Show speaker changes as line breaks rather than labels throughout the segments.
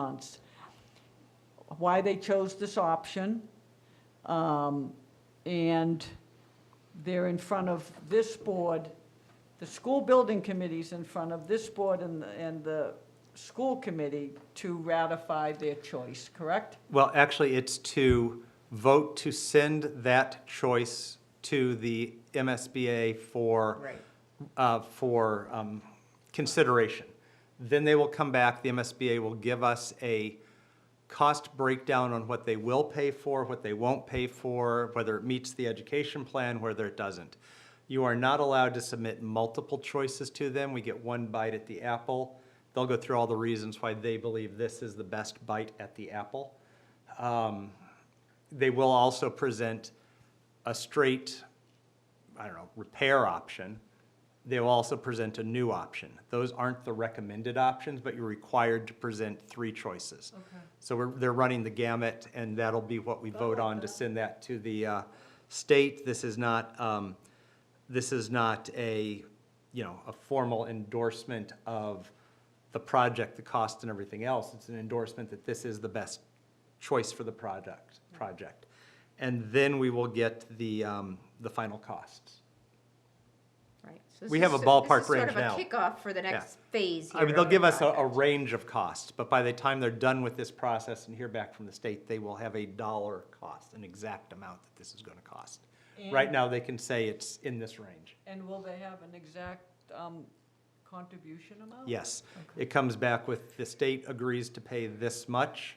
months. Why they chose this option, um, and they're in front of this board, the school building committee's in front of this board and, the- and the school committee to ratify their choice, correct?
Well, actually, it's to vote to send that choice to the MSBA for,
Right.
uh, for um, consideration. Then they will come back, the MSBA will give us a cost breakdown on what they will pay for, what they won't pay for, whether it meets the education plan, whether it doesn't. You are not allowed to submit multiple choices to them. We get one bite at the apple. They'll go through all the reasons why they believe this is the best bite at the apple. Um, They will also present a straight, I don't know, repair option. They will also present a new option. Those aren't the recommended options, but you're required to present three choices. So we're, they're running the gamut, and that'll be what we vote on to send that to the uh, state. This is not, um, this is not a, you know, a formal endorsement of the project, the cost and everything else. It's an endorsement that this is the best choice for the project, project. And then we will get the, um, the final costs.
Right. So this
We have
is
a
so-
ballpark range
This is
now.
sort of a kickoff for the next phase here.
I mean, they'll
of the
give us a, a
project.
range of costs, but by the time they're done with this process and hear back from the state, they will have a dollar cost, an exact amount that this is gonna cost. Right
And-
now, they can say it's in this range.
And will they have an exact um, contribution amount?
Yes. It comes back with, the state agrees to pay this much,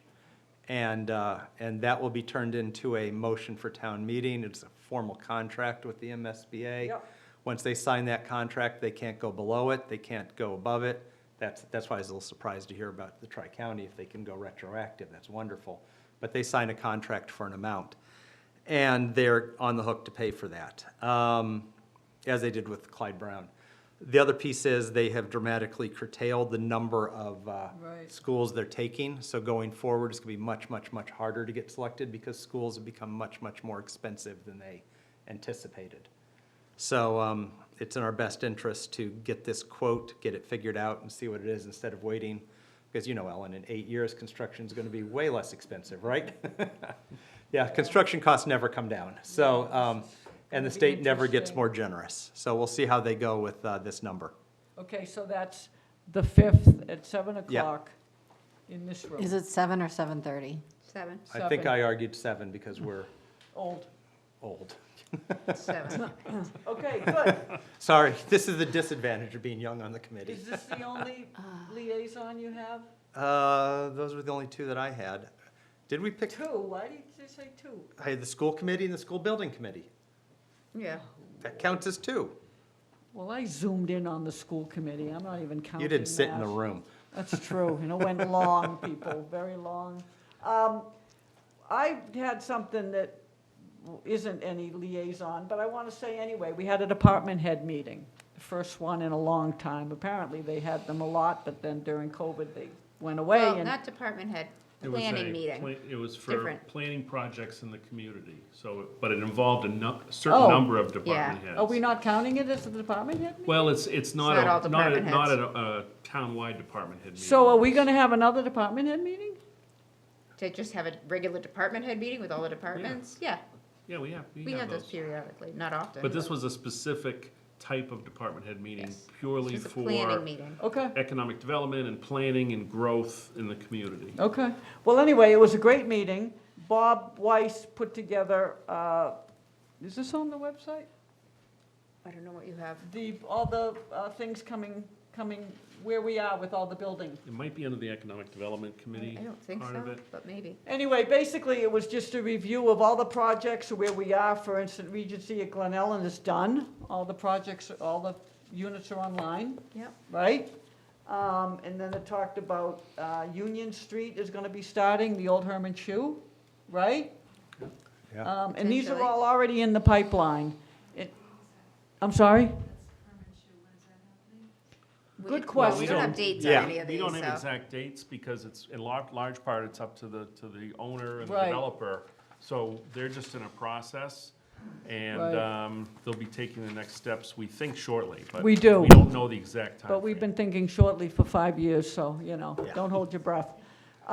and, uh, and that will be turned into a motion for town meeting. It's a formal contract with the MSBA.
Yep.
Once they sign that contract, they can't go below it, they can't go above it. That's, that's why I was a little surprised to hear about the tri-county, if they can go retroactive, that's wonderful. But they sign a contract for an amount, and they're on the hook to pay for that, um, as they did with Clyde Brown. The other piece is they have dramatically curtailed the number of uh,
Right.
schools they're taking. So going forward, it's going to be much, much, much harder to get selected because schools have become much, much more expensive than they anticipated. So um, it's in our best interest to get this quote, get it figured out and see what it is instead of waiting. Because you know, Ellen, in eight years, construction's going to be way less expensive, right? Yeah, construction costs never come down. So, um, and the
It's gonna be
state never gets
interesting.
more generous. So we'll see how they go with uh, this number.
Okay, so that's the 5th at 7 o'clock in this room.
Is it seven or seven thirty?
Seven,
I think
Seven.
I argued seven because we're
Old.
old.
seven.
Okay, good.
Sorry, this is the disadvantage of being young on the committee.
Is this the only liaison you have?
Uh, Those were the only two that I had. Did we pick,
Two, why did you say two?
I had the school committee and the school building committee.
Yeah.
That counts as two.
Well, I zoomed in on the school committee, I'm not even counting
You didn't sit in the
that.
room.
That's true, and it went long, people, very long. Um, I had something that isn't any liaison, but I want to say anyway, we had a department head meeting, the first one in a long time. Apparently, they had them a lot, but then during COVID, they went away.
Well,
and-
not department head,
It was a
planning meeting.
pla- It was for
Different.
planning projects in the community, so, it- but it involved a nu- certain
Oh.
number of department heads.
Oh,
Are we not counting it as a department head meeting?
Well, it's, it's not
not all
a, not a,
department
not
heads.
a, uh townwide department head meeting.
So are we going to have another department head meeting?
To just have a regular department head meeting with all the departments? Yeah,
Yeah, we have, we
we have those
those.
periodically, not often.
But this was a specific type of department head meeting
Yes.
purely
It's a planning
for
meeting.
Okay.
economic development and planning and growth in the community.
Okay. Well, anyway, it was a great meeting. Bob Weiss put together, uh, is this on the website?
I don't know what you have.
The, all the uh, things coming, coming, where we are with all the building.
It might be under the Economic Development Committee
I don't think
part of
so,
it.
but maybe.
Anyway, basically, it was just a review of all the projects, where we are. For instance, Regency at Glen Ellen is done. All the projects, all the units are online,
Yep.
right? Um, And then it talked about uh, Union Street is going to be starting, the old Herman Shoe, right?
Yeah.
Um, And these are
Potentially.
all already in the pipeline. It- I'm sorry?
We-
Good
well, We
question.
don't have dates on
Yeah.
any of
We
these,
don't have
so.
exact dates because it's, in lar- large part, it's up to the, to the owner and the
Right.
developer. So they're just in a process and
Right.
um, they'll be taking the next steps, we think shortly, but.
We do.
We don't know the exact time.
But we've been thinking shortly for five years, so, you know,
Yeah.
don't hold your breath.